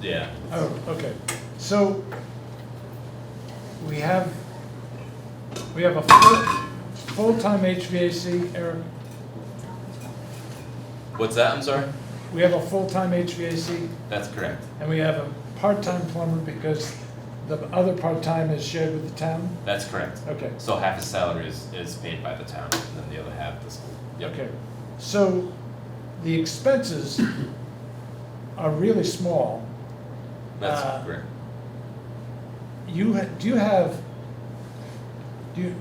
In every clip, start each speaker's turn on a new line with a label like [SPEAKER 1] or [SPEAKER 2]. [SPEAKER 1] Yeah.
[SPEAKER 2] Oh, okay. So we have, we have a full, full-time HVAC, Eric,
[SPEAKER 1] What's that? I'm sorry.
[SPEAKER 2] we have a full-time HVAC
[SPEAKER 1] That's correct.
[SPEAKER 2] and we have a part-time plumber because the other part-time is shared with the town?
[SPEAKER 1] That's correct.
[SPEAKER 2] Okay,
[SPEAKER 1] So half his salary is, is paid by the town, and then the other half the school. Yep.
[SPEAKER 2] okay. So the expenses are really small.
[SPEAKER 1] That's
[SPEAKER 2] Uh,
[SPEAKER 1] correct.
[SPEAKER 2] You, ha- do you have, do you,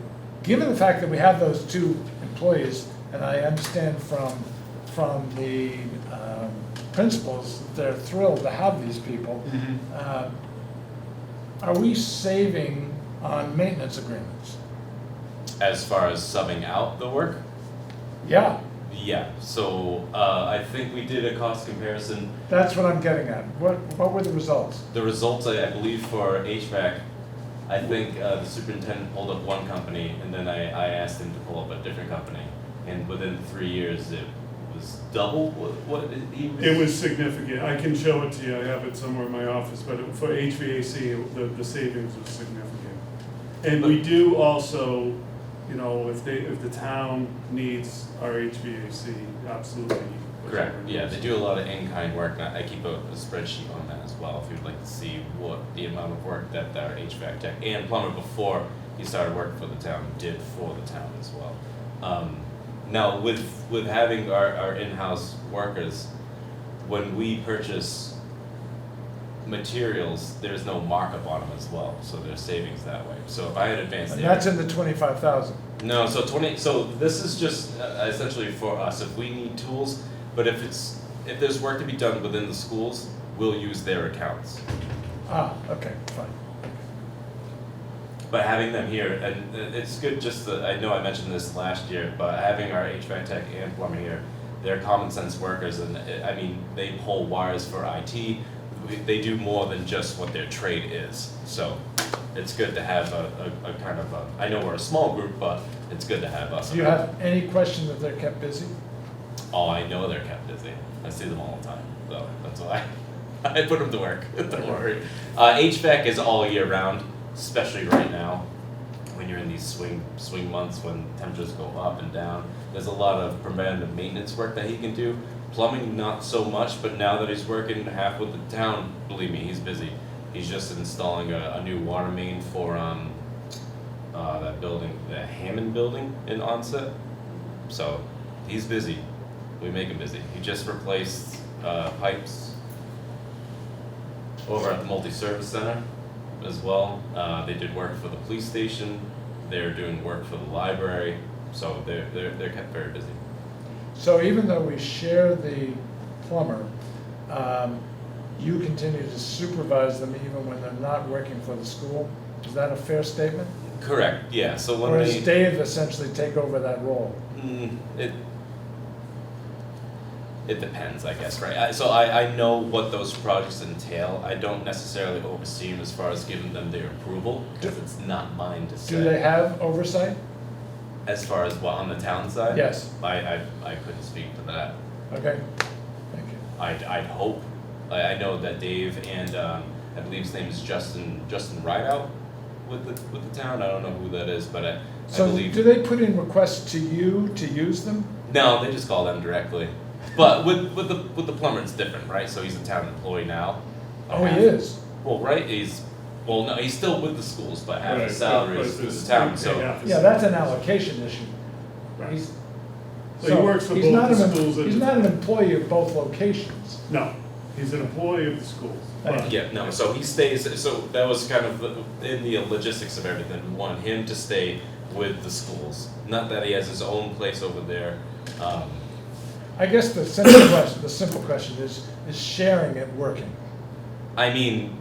[SPEAKER 2] given the fact that we have those two employees, and I understand from, from the um, principals, they're thrilled to have these people, uh, are we saving on maintenance agreements?
[SPEAKER 1] As far as subbing out the work,
[SPEAKER 2] Yeah,
[SPEAKER 1] yeah. So uh, I think we did a cost comparison.
[SPEAKER 2] that's what I'm getting at. What, what were the results?
[SPEAKER 1] The results, I, I believe, for HVAC, I think uh, the superintendent pulled up one company, and then I, I asked him to pull up a different company, and within three years, it was double what, what he was.
[SPEAKER 3] It was significant. I can show it to you. I have it somewhere in my office, but it- for HVAC, it- the, the savings was significant. And we do also, you know, if they, if the town needs our HVAC, absolutely.
[SPEAKER 1] Correct, yeah, they do a lot of in-kind work, and I I keep a, a spreadsheet on that as well, if you'd like to see what the amount of work that our HVAC tech and plumber before he started working for the town did for the town as well. Um, now, with, with having our, our in-house workers, when we purchase materials, there's no markup on them as well, so there's savings that way, so if I had advanced.
[SPEAKER 2] And
[SPEAKER 1] Air-
[SPEAKER 2] that's in the twenty-five thousand.
[SPEAKER 1] no, so twenty. So this is just uh, essentially for us. If we need tools, but if it's if there's work to be done within the schools, we'll use their accounts.
[SPEAKER 2] Ah, okay, fine.
[SPEAKER 1] But having them here, and uh, it's good. Just that I know I mentioned this last year, but having our HVAC tech and plumber here, they're common sense workers, and uh, I mean they pull wires for IT. We- They do more than just what their trade is. So it's good to have a, a, a kind of a. I know we're a small group, but it's good to have us.
[SPEAKER 2] Do you have any question that they're kept busy?
[SPEAKER 1] Oh, I know they're kept busy. I see them all the time, so that's why I put them to work. Don't worry. Uh, HVAC is all year round, especially right now when you're in these swing swing months when temperatures go up and down. There's a lot of preventative maintenance work that he can do. Plumbing, not so much, but now that he's working half with the town, believe me, he's busy. He's just installing a, a new water main for um, uh, that building, the Hammond building in Onset. So he's busy. We make him busy. He just replaced uh, pipes over at the multi-service center as well. Uh, they did work for the police station. They're doing work for the library. So they're they're they're kept very busy.
[SPEAKER 2] So even though we share the plumber, um, you continue to supervise them even when they're not working for the school? Is that a fair statement?
[SPEAKER 1] Correct. Yeah. So when
[SPEAKER 2] Or
[SPEAKER 1] they
[SPEAKER 2] does Dave essentially take over that role?
[SPEAKER 1] Mm, it it depends, I guess, right? I, so I, I know what those projects entail. I don't necessarily oversee them as far as giving them their approval because
[SPEAKER 2] Do-
[SPEAKER 1] it's not mine to say.
[SPEAKER 2] Do they have oversight?
[SPEAKER 1] As far as what on the town side?
[SPEAKER 2] Yes.
[SPEAKER 1] I, I, I couldn't speak to that.
[SPEAKER 2] Okay, thank you.
[SPEAKER 1] I'd, I'd hope. I, I know that Dave and um, I believe his name is Justin Justin Rideout with the with the town. I don't know who that is, but I, I
[SPEAKER 2] So
[SPEAKER 1] believe
[SPEAKER 2] do they put in requests to you to use them?
[SPEAKER 1] No, they just call them directly. But with with the with the plumber, it's different, right? So he's a town employee now.
[SPEAKER 2] Oh, he is?
[SPEAKER 1] Well, right? He's well, no, he's still with the schools, but half
[SPEAKER 3] Right,
[SPEAKER 1] his salary
[SPEAKER 3] but
[SPEAKER 1] is
[SPEAKER 3] it's-
[SPEAKER 1] is town.
[SPEAKER 3] they
[SPEAKER 1] So
[SPEAKER 3] have to
[SPEAKER 2] Yeah,
[SPEAKER 3] save.
[SPEAKER 2] that's an allocation issue.
[SPEAKER 3] Right.
[SPEAKER 2] He's-
[SPEAKER 3] So he works for
[SPEAKER 2] he's
[SPEAKER 3] both
[SPEAKER 2] not
[SPEAKER 3] the
[SPEAKER 2] an em-
[SPEAKER 3] schools and
[SPEAKER 2] He's
[SPEAKER 3] the
[SPEAKER 2] not an
[SPEAKER 3] town.
[SPEAKER 2] employee of both locations.
[SPEAKER 3] No, he's an employee of the schools.
[SPEAKER 2] Thank
[SPEAKER 3] but-
[SPEAKER 1] yeah, no. So he stays. So that was kind of the- in the logistics of everything. We want him to stay with the schools. Not that he has his own place over there. Um,
[SPEAKER 2] I guess the simple question, the simple question is, is sharing it working?
[SPEAKER 1] I mean,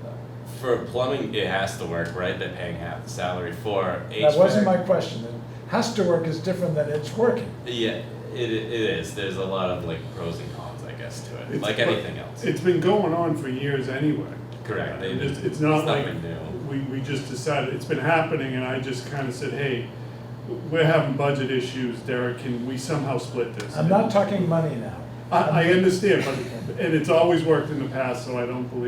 [SPEAKER 1] for plumbing, it has to work, right? They're paying half the salary for HVAC.
[SPEAKER 2] That wasn't my question. It Has to work is different than it's working.
[SPEAKER 1] Yeah, it, it is. There's a lot of like pros and cons, I guess, to it,
[SPEAKER 3] It's-
[SPEAKER 1] like
[SPEAKER 3] but
[SPEAKER 1] anything else.
[SPEAKER 3] It's been going on for years anyway.
[SPEAKER 1] Correct. They-
[SPEAKER 3] It's, it's not
[SPEAKER 1] it's
[SPEAKER 3] like,
[SPEAKER 1] nothing new.
[SPEAKER 3] we, we just decided, it's been happening, and I just kinda said, hey, we're having budget issues, Derek, can we somehow split this?
[SPEAKER 2] I'm not talking money now.
[SPEAKER 3] I, I understand, but, and it's always worked in the past, so I don't believe